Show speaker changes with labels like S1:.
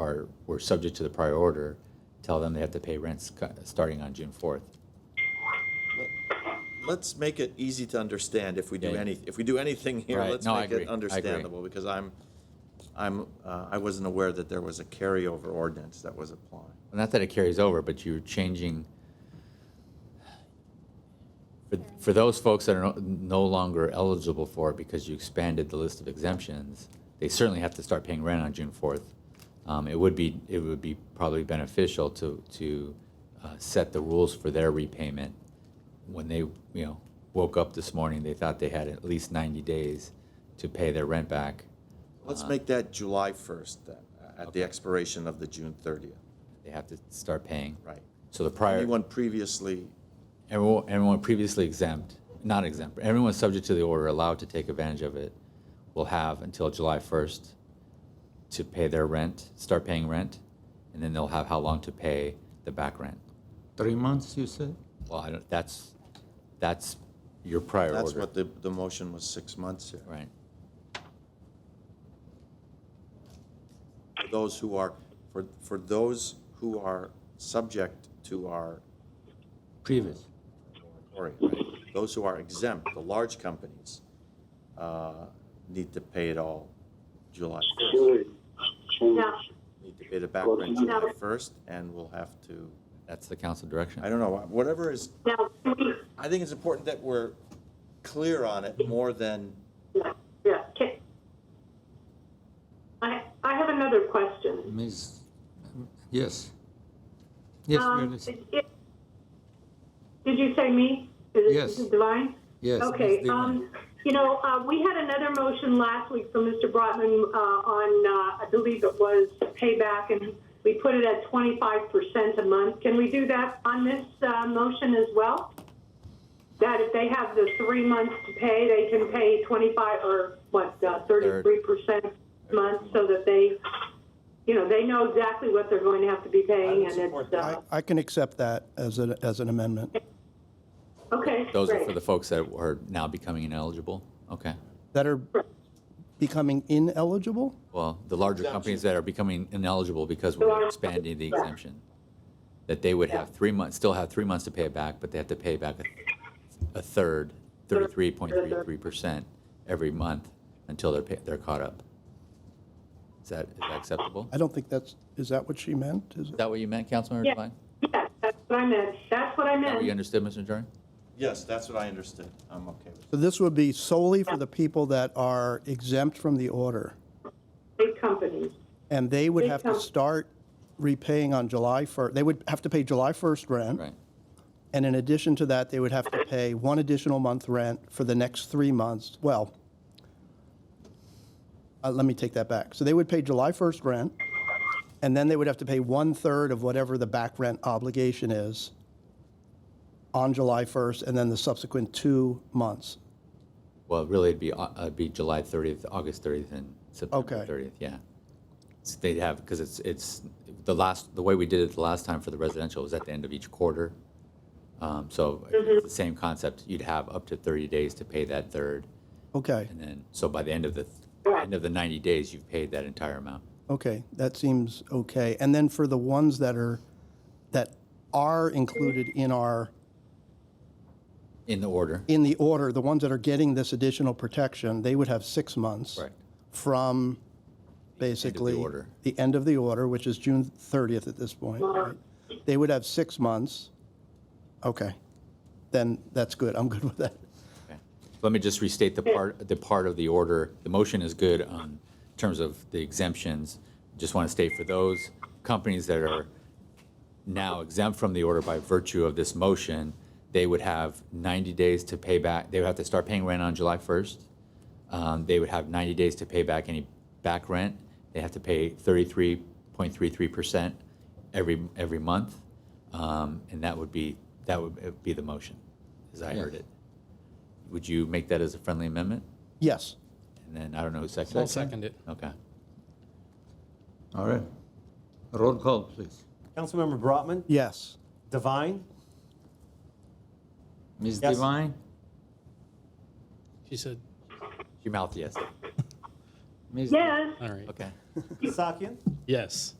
S1: are, were subject to the prior order, tell them they have to pay rents co- starting on June 4th.
S2: Let's make it easy to understand if we do
S1: Yeah, yeah.
S2: any, if we do anything here,
S1: Right,
S2: let's
S1: no, I
S2: make
S1: agree, I
S2: it
S1: agree.
S2: understandable, because I'm, I'm, uh, I wasn't aware that there was a carryover ordinance that was applying.
S1: Not that it carries over, but you're changing, for, for those folks that are no- no longer eligible for it because you expanded the list of exemptions, they certainly have to start paying rent on June 4th. Um, It would be, it would be probably beneficial to, to uh, set the rules for their repayment. When they, you know, woke up this morning, they thought they had at least 90 days to pay their rent back.
S2: Let's
S1: Uh-huh.
S2: make that July 1st then, uh, at the expiration of the June 30th,
S1: They have to start paying.
S2: right?
S1: So the prior.
S2: Anyone previously,
S1: Everyone, everyone previously exempt, not exempt, but everyone subject to the order allowed to take advantage of it will have until July 1st to pay their rent, start paying rent, and then they'll have how long to pay the back rent.
S3: Three months, you said?
S1: Well, I don't, that's, that's your prior
S2: that's
S1: order,
S2: what the, the motion was six months here.
S1: right?
S2: For those who are, for, for those who are subject to our
S3: Previous.
S2: moratorium, right? Those who are exempt, the large companies, uh, need to pay it all July 1st.
S4: No,
S2: Need to pay the back rent July 1st, and we'll have to,
S1: That's the council direction.
S2: I don't know, whatever is,
S4: no, please,
S2: I think it's important that we're clear on it more than,
S4: no, yeah, can I, I have another question.
S3: Ms., yes. Yes, we are
S4: Um,
S3: listening.
S4: it- Did you say me? Is it-
S3: Yes.
S4: Is it Divine?
S3: Yes, Ms.
S4: Okay,
S3: Devine.
S4: um, you know, uh, we had another motion last week from Mr. Brotman, uh, on, uh, I believe it was payback, and we put it at twenty-five percent a month. Can we do that on this, uh, motion as well? That if they have the three months to pay, they can pay twenty-five, or what, uh, thirty-three percent a month, so that they, you know, they know exactly what they're going to have to be paying, and it's,
S5: I,
S4: uh,
S5: I can accept that as an, as an amendment.
S4: uh, okay,
S1: Those are for
S4: great.
S1: the folks that are now becoming ineligible? Okay.
S5: That are becoming ineligible?
S1: Well, the larger companies that are becoming ineligible because we're expanding the exemption, that they would have three months, still have three months to pay it back, but they have to pay back a- a third, 33.33% every month until they're, pa- they're caught up. Is that, is that acceptable?
S5: I
S1: Is
S5: don't think that's, is that what she meant? Is it?
S1: that what you meant, Councilmember
S4: Yeah.
S1: Devine? Is
S4: Yeah, that's what I meant, that's what I
S1: that what you
S4: meant.
S1: understood, Mr. Najarian?
S2: yes, that's what I understood. I'm okay with it.
S5: So this would be solely for the people that are exempt from the order,
S4: Big companies.
S5: and they would have to start repaying on July 1st. They would have to pay July 1st rent.
S1: Right.
S5: And in addition to that, they would have to pay one additional month rent for the next three months. Well, uh, let me take that back. So they would pay July 1st rent, and then they would have to pay one-third of whatever the back rent obligation is on July 1st, and then the subsequent two months.
S1: Well, really, it'd be, au- uh, it'd be July 30th, August 30th, and September
S5: Okay.
S1: 30th, yeah. So They'd have, because it's, it's, the last, the way we did it the last time for the residential was at the end of each quarter. Um, So it's the same concept, you'd have up to 30 days to pay that third,
S5: Okay,
S1: and then, so by the end of the, end of the 90 days, you've paid that entire amount.
S5: okay, that seems okay. And then for the ones that are, that are included in our
S1: In the order,
S5: in the order, the ones that are getting this additional protection, they would have six months.
S1: Correct.
S5: From basically.
S1: order.
S5: the end of the order, which is June 30th at this point. right? They would have six months. Okay. Then that's good. I'm good with that.
S1: Okay. Let me just restate the part, the part of the order. The motion is good on in terms of the exemptions. Just want to state for those companies that are now exempt from the order by virtue of this motion, they would have 90 days to pay back, they would have to start paying rent on July 1st. Um, They would have 90 days to pay back any back rent. They have to pay 33.33% every, every month. Um, And that would be, that would be the motion, as I heard it. Would you make that as a friendly amendment?
S5: Yes.
S1: And then, I don't know who seconded.
S6: I'll second it.
S1: Okay.
S3: All right. Roll call, please.
S7: Councilmember Brotman,
S5: Yes.
S7: Devine,
S3: Ms.
S7: Yes.
S3: Devine,
S6: She said,
S1: She mouthed yes.
S3: Ms.
S4: Yes.
S6: all right.
S1: Okay.
S7: Sakian,
S6: Yes.